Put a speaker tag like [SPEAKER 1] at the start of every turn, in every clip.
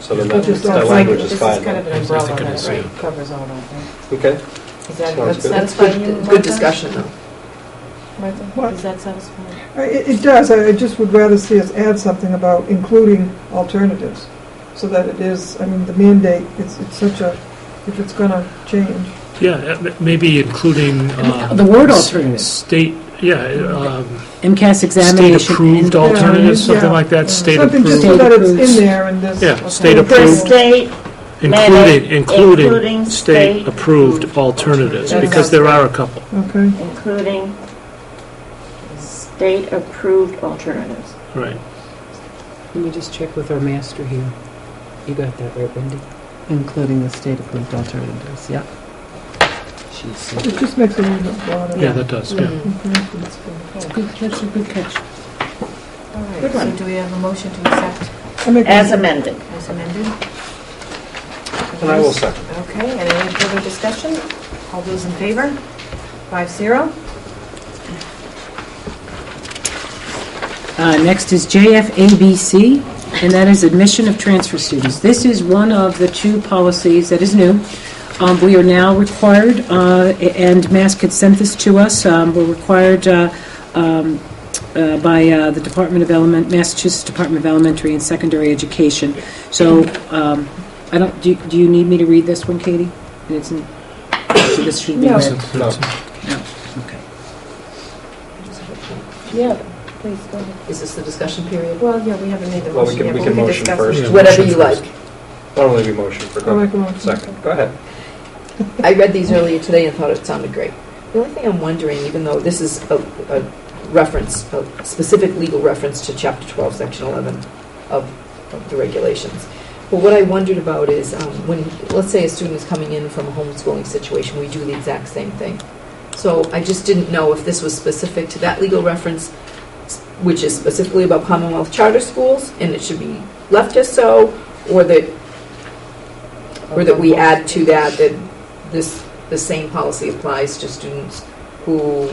[SPEAKER 1] so then
[SPEAKER 2] We
[SPEAKER 1] that,
[SPEAKER 2] just
[SPEAKER 1] that
[SPEAKER 2] don't
[SPEAKER 1] language
[SPEAKER 2] like-
[SPEAKER 1] is fine.
[SPEAKER 2] This is kind of an
[SPEAKER 3] I was
[SPEAKER 2] umbrella
[SPEAKER 3] thinking
[SPEAKER 2] that
[SPEAKER 3] the
[SPEAKER 2] right,
[SPEAKER 3] same.
[SPEAKER 2] covers all of them.
[SPEAKER 1] Okay, Sounds
[SPEAKER 2] Is that, that's,
[SPEAKER 1] good.
[SPEAKER 2] that's
[SPEAKER 4] That's
[SPEAKER 2] fine. you,
[SPEAKER 4] good,
[SPEAKER 2] Martha?
[SPEAKER 4] good discussion, though.
[SPEAKER 2] Martha,
[SPEAKER 5] What?
[SPEAKER 2] does that satisfy?
[SPEAKER 5] I- It it does, I I just would rather see us add something about including alternatives, so that it is, I mean, the mandate, it's it's such a, if it's going to change.
[SPEAKER 3] Yeah, uh, m- maybe including. um,
[SPEAKER 6] The word
[SPEAKER 3] s-
[SPEAKER 6] alternative,
[SPEAKER 3] State, yeah, um,
[SPEAKER 6] MCAS examination.
[SPEAKER 3] state-approved alternatives, something
[SPEAKER 5] yeah.
[SPEAKER 3] like that,
[SPEAKER 5] Something just
[SPEAKER 3] state-approved,
[SPEAKER 5] so that it's
[SPEAKER 6] State-approved.
[SPEAKER 5] in there and there's.
[SPEAKER 3] Yeah, state-approved.
[SPEAKER 7] For state,
[SPEAKER 3] including,
[SPEAKER 7] mandate,
[SPEAKER 3] including
[SPEAKER 7] including
[SPEAKER 3] state-approved
[SPEAKER 7] state-approved
[SPEAKER 3] alternatives,
[SPEAKER 2] alternatives.
[SPEAKER 3] because there are a couple.
[SPEAKER 5] Okay,
[SPEAKER 7] including state-approved alternatives.
[SPEAKER 3] Right.
[SPEAKER 8] Let me just check with our master here. You got that right, Wendy? Including the state-approved alternatives, yeah. She's,
[SPEAKER 5] it just makes it a little bit broader.
[SPEAKER 3] Yeah, that does, yeah.
[SPEAKER 5] Mm-hmm. Okay.
[SPEAKER 6] Good catch, good catch.
[SPEAKER 2] All right,
[SPEAKER 7] Good
[SPEAKER 2] so
[SPEAKER 7] one.
[SPEAKER 2] do we have a motion to accept
[SPEAKER 5] I make a-
[SPEAKER 7] As amended.
[SPEAKER 2] as amended?
[SPEAKER 1] and I will second.
[SPEAKER 2] Okay, and any further discussion? All those in favor? Five zero?
[SPEAKER 6] Uh, Next is JFABC, and that is admission of transfer students. This is one of the two policies that is new. Um, We are now required, uh, and Mass had sent this to us, um, we're required uh, um, uh, by uh, the Department of Element, Massachusetts Department of Elementary and Secondary Education. So, um, I don't, do you- do you need me to read this one, Katie? And it's in- so this should be
[SPEAKER 2] No.
[SPEAKER 6] read.
[SPEAKER 3] That's- that's-
[SPEAKER 6] Okay.
[SPEAKER 7] Yeah, please go ahead.
[SPEAKER 4] Is this the discussion period?
[SPEAKER 2] Well, yeah, we haven't made the
[SPEAKER 1] Well, we
[SPEAKER 2] motion
[SPEAKER 1] can,
[SPEAKER 2] yet,
[SPEAKER 1] we
[SPEAKER 2] but
[SPEAKER 1] can motion
[SPEAKER 2] discuss
[SPEAKER 1] first.
[SPEAKER 3] Yeah.
[SPEAKER 4] Whatever you
[SPEAKER 3] motion
[SPEAKER 4] like.
[SPEAKER 3] first.
[SPEAKER 1] Normally we motion for,
[SPEAKER 5] I make a motion.
[SPEAKER 1] second, go ahead.
[SPEAKER 4] I read these earlier today and thought it sounded great. The only thing I'm wondering, even though this is a, a reference, a specific legal reference to Chapter 12, Section 11 of, of the regulations, but what I wondered about is um, when, let's say a student is coming in from a homeschooling situation, we do the exact same thing. So I just didn't know if this was specific to that legal reference, which is specifically about Commonwealth charter schools, and it should be left as so, or that, or that we add to that that this, the same policy applies to students who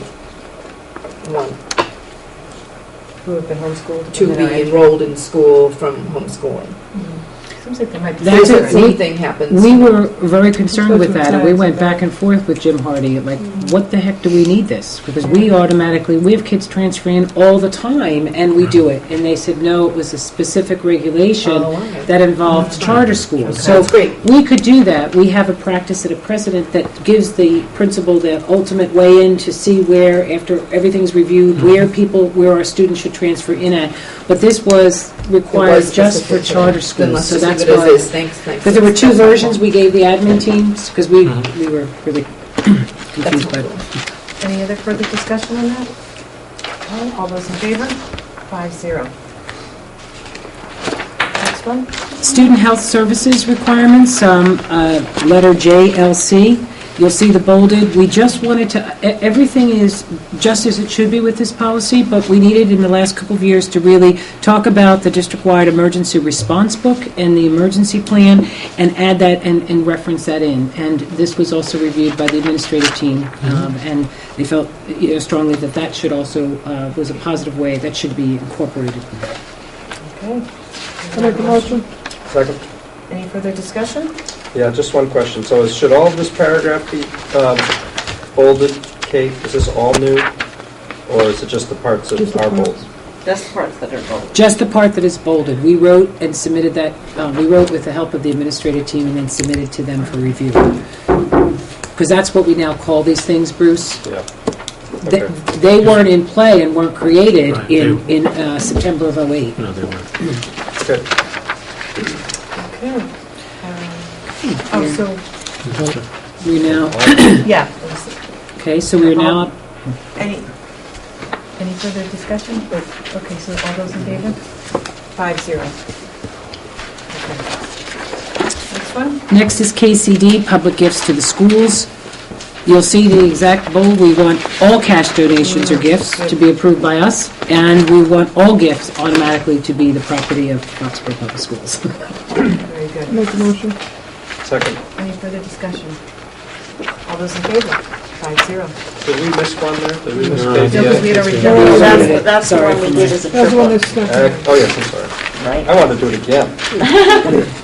[SPEAKER 4] want
[SPEAKER 2] Who have been homeschooled?
[SPEAKER 4] to be enrolled in school from homeschooling.
[SPEAKER 2] Mm-hmm. Seems like there might be.
[SPEAKER 6] That's
[SPEAKER 4] So
[SPEAKER 6] it.
[SPEAKER 4] the same thing happens.
[SPEAKER 6] We were very concerned with that, and we went back and forth with Jim Hardy, like, what the heck do we need this? Because we automatically, we have kids transferring all the time, and we do it. And they said, no, it was a specific regulation
[SPEAKER 4] Oh, all right.
[SPEAKER 6] that involved charter schools. So
[SPEAKER 4] That's great.
[SPEAKER 6] we could do that. We have a practice and a precedent that gives the principal the ultimate way in to see where, after everything's reviewed, where people, where our students should transfer in at. But this was
[SPEAKER 4] It
[SPEAKER 6] required
[SPEAKER 4] was
[SPEAKER 6] just for
[SPEAKER 4] specific to that.
[SPEAKER 6] charter
[SPEAKER 4] Then
[SPEAKER 6] schools,
[SPEAKER 4] let's
[SPEAKER 6] so
[SPEAKER 4] just
[SPEAKER 6] that's
[SPEAKER 4] leave
[SPEAKER 6] why.
[SPEAKER 4] it as is. Thanks, thanks.
[SPEAKER 6] Because there were two
[SPEAKER 4] That's helpful.
[SPEAKER 6] versions, we gave the admin teams, because we,
[SPEAKER 3] Mhm.
[SPEAKER 6] we were really
[SPEAKER 4] That's
[SPEAKER 6] confused by
[SPEAKER 4] helpful.
[SPEAKER 2] Any other further discussion on that? No? All those in favor? Five zero. Next one?
[SPEAKER 6] Student health services requirements, um, uh, letter JLC, you'll see the bolded, we just wanted to, e- everything is just as it should be with this policy, but we needed in the last couple of years to really talk about the district-wide emergency response book and the emergency plan, and add that and and reference that in. And this was also reviewed by the administrative team, um, and they felt you know, strongly that that should also, uh, was a positive way, that should be incorporated.
[SPEAKER 2] Okay.
[SPEAKER 5] I make a motion.
[SPEAKER 1] Second,
[SPEAKER 2] Any further discussion?
[SPEAKER 1] yeah, just one question, so is- should all of this paragraph be um, bolded, Kate, is this all new? Or is it just the parts that
[SPEAKER 5] Just the
[SPEAKER 1] are
[SPEAKER 5] parts.
[SPEAKER 1] bold?
[SPEAKER 7] That's the parts that are bold.
[SPEAKER 6] Just the part that is bolded. We wrote and submitted that, uh, we wrote with the help of the administrative team and then submitted to them for review. Because that's what we now call these things, Bruce.
[SPEAKER 1] Yeah,
[SPEAKER 6] They
[SPEAKER 1] Okay.
[SPEAKER 6] they weren't in play and weren't created
[SPEAKER 3] Right,
[SPEAKER 6] in in uh, September of '08.
[SPEAKER 3] No, they weren't.
[SPEAKER 1] okay.
[SPEAKER 2] Okay. Um, Oh, so,
[SPEAKER 6] We now,
[SPEAKER 2] yeah.
[SPEAKER 6] okay, so we're now up
[SPEAKER 2] Any, any further discussion? Okay, so all those in favor? Five zero. Okay. Next one?
[SPEAKER 6] Next is KCD, public gifts to the schools. You'll see the exact bold, we want all cash donations or gifts to be approved by us, and we want all gifts automatically to be the property of Foxborough Public Schools.
[SPEAKER 2] Very
[SPEAKER 5] I
[SPEAKER 2] good.
[SPEAKER 5] Make a motion.
[SPEAKER 1] Second,
[SPEAKER 2] Any further discussion? All those in favor? Five zero.
[SPEAKER 1] did we miss one there? Did we miss
[SPEAKER 3] No.
[SPEAKER 1] KDI?
[SPEAKER 2] No, because we had already
[SPEAKER 3] Yeah.
[SPEAKER 2] done
[SPEAKER 7] Well,
[SPEAKER 2] it.
[SPEAKER 7] That's, that's the
[SPEAKER 6] Sorry
[SPEAKER 7] one we
[SPEAKER 6] for
[SPEAKER 7] did as a
[SPEAKER 5] That's the one
[SPEAKER 7] triple,
[SPEAKER 5] that's stuck.
[SPEAKER 1] Uh, Oh, yes, I'm sorry.
[SPEAKER 7] right?
[SPEAKER 1] I wanted to do it again.